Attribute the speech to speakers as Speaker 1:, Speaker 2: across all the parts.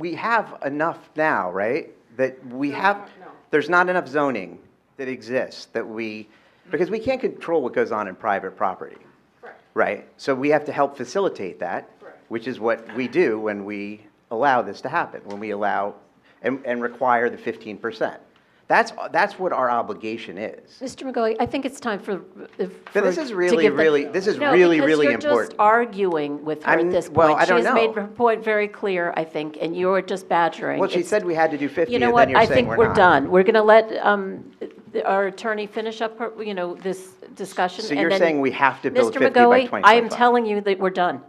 Speaker 1: we have enough now, right? That we have, there's not enough zoning that exists that we, because we can't control what goes on in private property,
Speaker 2: Correct.
Speaker 1: right? So we have to help facilitate that,
Speaker 2: Correct.
Speaker 1: which is what we do when we allow this to happen, when we allow and, and require the fifteen percent. That's, that's what our obligation is.
Speaker 3: Mr. McGoley, I think it's time for. if-
Speaker 1: But this
Speaker 3: for-
Speaker 1: is
Speaker 3: to
Speaker 1: really,
Speaker 3: give the-
Speaker 1: really- this is
Speaker 3: No,
Speaker 1: really,
Speaker 3: because
Speaker 1: really
Speaker 3: you're just
Speaker 1: important.
Speaker 3: arguing with her
Speaker 1: I'm-
Speaker 3: at this point.
Speaker 1: well, I don't
Speaker 3: She has made
Speaker 1: know.
Speaker 3: her point very clear, I think, and you're just badgering.
Speaker 1: Well, she
Speaker 3: It's-
Speaker 1: said we had to do fifty,
Speaker 3: You
Speaker 1: and
Speaker 3: know
Speaker 1: then
Speaker 3: what?
Speaker 1: you're
Speaker 3: I
Speaker 1: saying
Speaker 3: think
Speaker 1: we're not.
Speaker 3: we're done. We're going to let um, the- our attorney finish up, her- you know, this discussion.
Speaker 1: So
Speaker 3: and
Speaker 1: you're
Speaker 3: then-
Speaker 1: saying we have to build fifty by
Speaker 3: Mr. McGoley, I am
Speaker 1: 2025.
Speaker 3: telling you that we're done.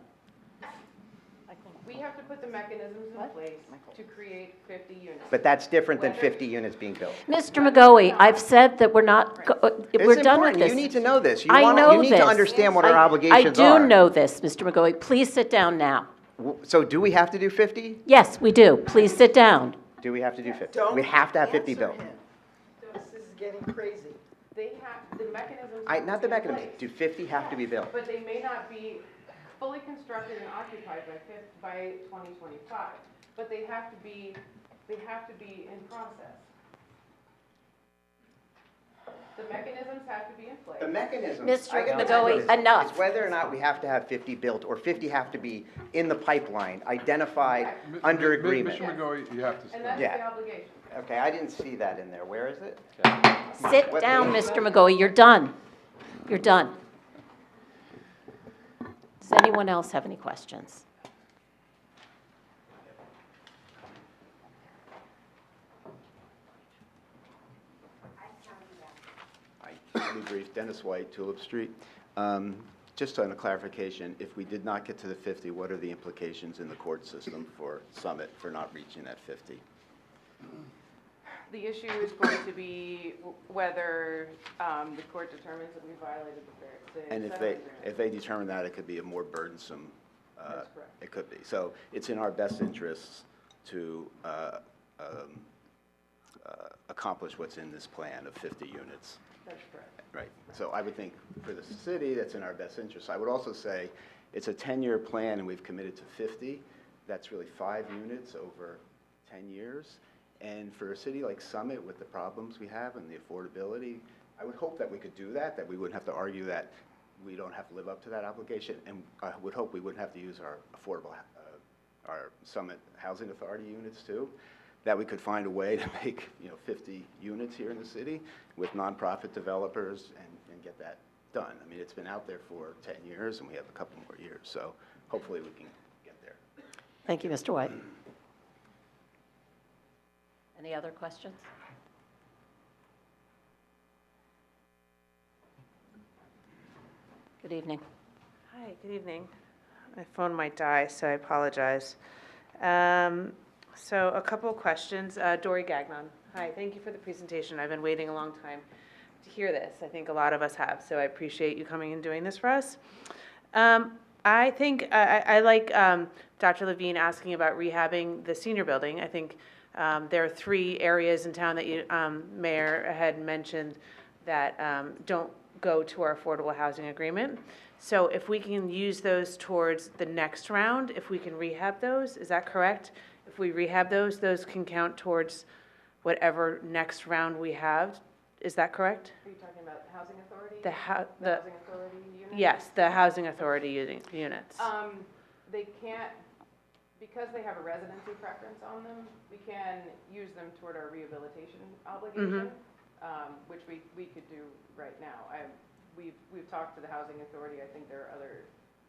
Speaker 2: We have to put the mechanisms in place to create 50 units.
Speaker 1: But that's different than fifty units being built.
Speaker 3: Mr. McGoley, I've said that we're not, go- uh, we're
Speaker 1: It's
Speaker 3: done with
Speaker 1: important.
Speaker 3: this.
Speaker 1: You need to know this. You
Speaker 3: I
Speaker 1: wanna-
Speaker 3: know
Speaker 1: You need to
Speaker 3: this.
Speaker 1: understand what our
Speaker 3: I-
Speaker 1: obligations are.
Speaker 3: I do know this, Mr. McGoley. Please sit down now.
Speaker 1: W- So do we have to do 50?
Speaker 3: Yes, we do. Please sit down.
Speaker 1: Do we have to do 50? We have to have 50 built.
Speaker 4: This is getting crazy.
Speaker 2: They have, the mechanisms.
Speaker 1: I, not the
Speaker 2: have to be in
Speaker 1: mechanism, do 50 have to be built?
Speaker 2: place, But they may not be fully constructed and occupied by fif, by 2025. But they have to be, they have to be in process. The mechanisms have to be in
Speaker 1: The
Speaker 2: place.
Speaker 1: mechanism.
Speaker 3: Mr.
Speaker 1: I get the
Speaker 3: McGoey,
Speaker 1: mechanism.
Speaker 3: enough.
Speaker 1: It's whether or not we have to have 50 built, or 50 have to be in the pipeline, identified,
Speaker 2: Right.
Speaker 5: Mi-
Speaker 1: under
Speaker 5: mi- mi-
Speaker 1: agreement.
Speaker 5: Mr. McGoey, you have to
Speaker 2: And
Speaker 5: stop.
Speaker 2: that's the
Speaker 1: Yeah.
Speaker 2: obligation.
Speaker 1: Okay, I didn't see that in there. Where is it?
Speaker 3: Sit
Speaker 1: What
Speaker 3: down,
Speaker 1: page?
Speaker 3: Mr. McGoley. You're done. You're done. Does anyone else have any questions?
Speaker 6: Hi, let me brief. Dennis White, Tulip Street. Um, Just on a clarification, if we did not get to the 50, what are the implications in the court system for Summit for not reaching that 50?
Speaker 2: The issue is going to be w- whether um, the court determines that we violated the fair. the
Speaker 6: And if they,
Speaker 2: settlement agreement.
Speaker 6: if they determine that, it could be a more burdensome, uh,
Speaker 2: That's correct.
Speaker 6: it could be. So it's in our best interests to uh, um, uh, accomplish what's in this plan of 50 units.
Speaker 2: That's correct.
Speaker 6: Right, so I would think for the city, that's in our best interest. I would also say, it's a 10-year plan and we've committed to 50. That's really five units over 10 years. And for a city like Summit with the problems we have and the affordability, I would hope that we could do that, that we wouldn't have to argue that we don't have to live up to that obligation. And I would hope we wouldn't have to use our affordable, uh, our Summit Housing Authority units too that we could find a way to make, you know, 50 units here in the city with nonprofit developers and, and get that done. I mean, it's been out there for 10 years, and we have a couple more years, so hopefully we can get there.
Speaker 3: Thank you, Mr. White. Any other questions? Good evening.
Speaker 7: Hi, good evening. My phone might die, so I apologize. Um, So a couple of questions. Uh, Dory Gagnon, hi, thank you for the presentation. I've been waiting a long time to hear this. I think a lot of us have, so I appreciate you coming and doing this for us. Um, I think, I, I- I like um, Dr. Levine asking about rehabbing the senior building. I think um, there are three areas in town that you, um, Mayor had mentioned that um, don't go to our affordable housing agreement. So if we can use those towards the next round, if we can rehab those, is that correct? If we rehab those, those can count towards whatever next round we have, is that correct?
Speaker 2: Are you talking about the housing authority?
Speaker 7: The hou-
Speaker 2: The
Speaker 7: the-
Speaker 2: housing authority unit?
Speaker 7: Yes, the housing authority uni- units.
Speaker 2: Um, they can't, because they have a residency preference on them, we can use them toward our rehabilitation obligation,
Speaker 7: Mm-hmm.
Speaker 2: um, which we, we could do right now. I, we've, we've talked to the housing authority, I think there are other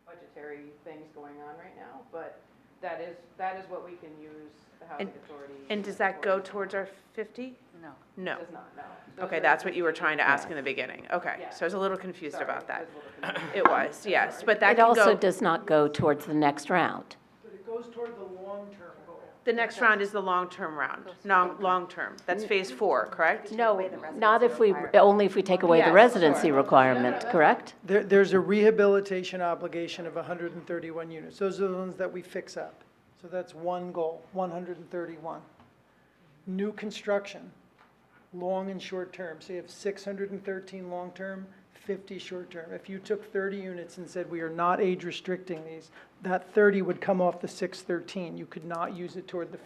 Speaker 2: budgetary things going on right now, but that is, that is what we can use the housing
Speaker 7: And-
Speaker 2: authority.
Speaker 7: And does that go
Speaker 2: for.
Speaker 7: towards our 50?
Speaker 4: No.
Speaker 7: No.
Speaker 2: Does not, no.
Speaker 7: Okay, that's what you were trying to ask in the beginning. Okay,
Speaker 2: Yeah.
Speaker 7: so I was a little confused
Speaker 2: Sorry,
Speaker 7: about that.
Speaker 2: was a little confusing.
Speaker 7: It was, yes, but that
Speaker 3: It
Speaker 7: can
Speaker 3: also
Speaker 7: go,
Speaker 3: does not go towards the next round.
Speaker 4: But it goes toward the long-term goal.
Speaker 7: the next round is the long-term round, non, long-term. That's phase four, correct?
Speaker 3: No, not if we, only if we take away
Speaker 7: Yeah,
Speaker 3: the
Speaker 7: Oh, sure.
Speaker 3: residency requirement, correct?
Speaker 4: There, there's a rehabilitation obligation of 131 units. Those are the ones that we fix up. So that's one goal, 131. New construction, long and short term. So you have 613 long-term, 50 short-term. If you took 30 units and said, we are not age restricting these, that 30 would come off the 613. You could not use it toward the